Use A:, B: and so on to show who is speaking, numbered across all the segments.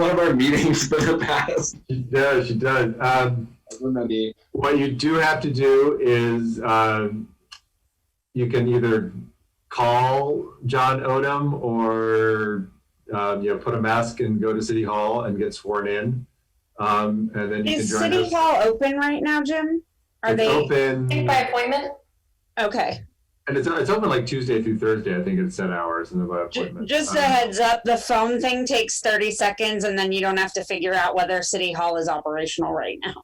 A: one of our meetings for the past?
B: She does, she does. Um,
A: Wouldn't that be?
B: what you do have to do is um, you can either call John Odom or um, you know put a mask and go to City Hall and get sworn in, um, and then you
C: Is
B: can join
C: City
B: us.
C: Hall open right now, Jim? Are
B: it's
C: they,
B: open?
D: Think by appointment?
C: okay,
B: And it's, it's open like Tuesday through Thursday. I think it's set hours and then by
C: J-
B: appointment.
C: just a
B: Um,
C: heads up, the phone thing takes thirty seconds and then you don't have to figure out whether City Hall is operational right now.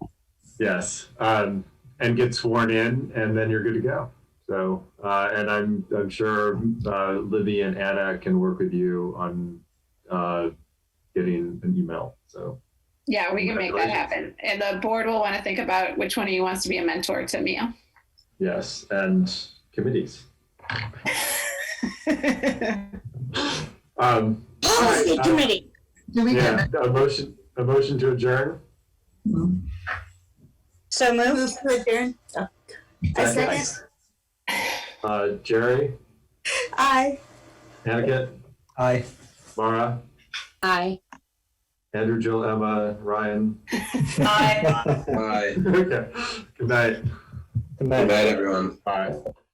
B: Yes, um, and get sworn in, and then you're good to go. So, uh, and I'm I'm sure uh, Libby and Anna can work with you on uh, getting an email. So,
E: Yeah, we can make that happen. And the board will want to think about which one of you wants to be a mentor to Mia.
B: yes, and committees. Um,
C: Policy
B: Alright, uh,
C: committee,
F: Do we get
B: yeah, a motion a motion to adjourn.
C: so move,
F: move to adjourn? Oh. I second.
B: Uh, Jerry,
F: Aye.
B: Anakin,
G: Aye.
B: Mara,
C: aye.
B: Andrew, Jill, Emma, Ryan.
D: Aye.
A: Bye.
B: okay, good night.
G: Good
A: Good
G: night.
A: night, everyone.
B: Bye.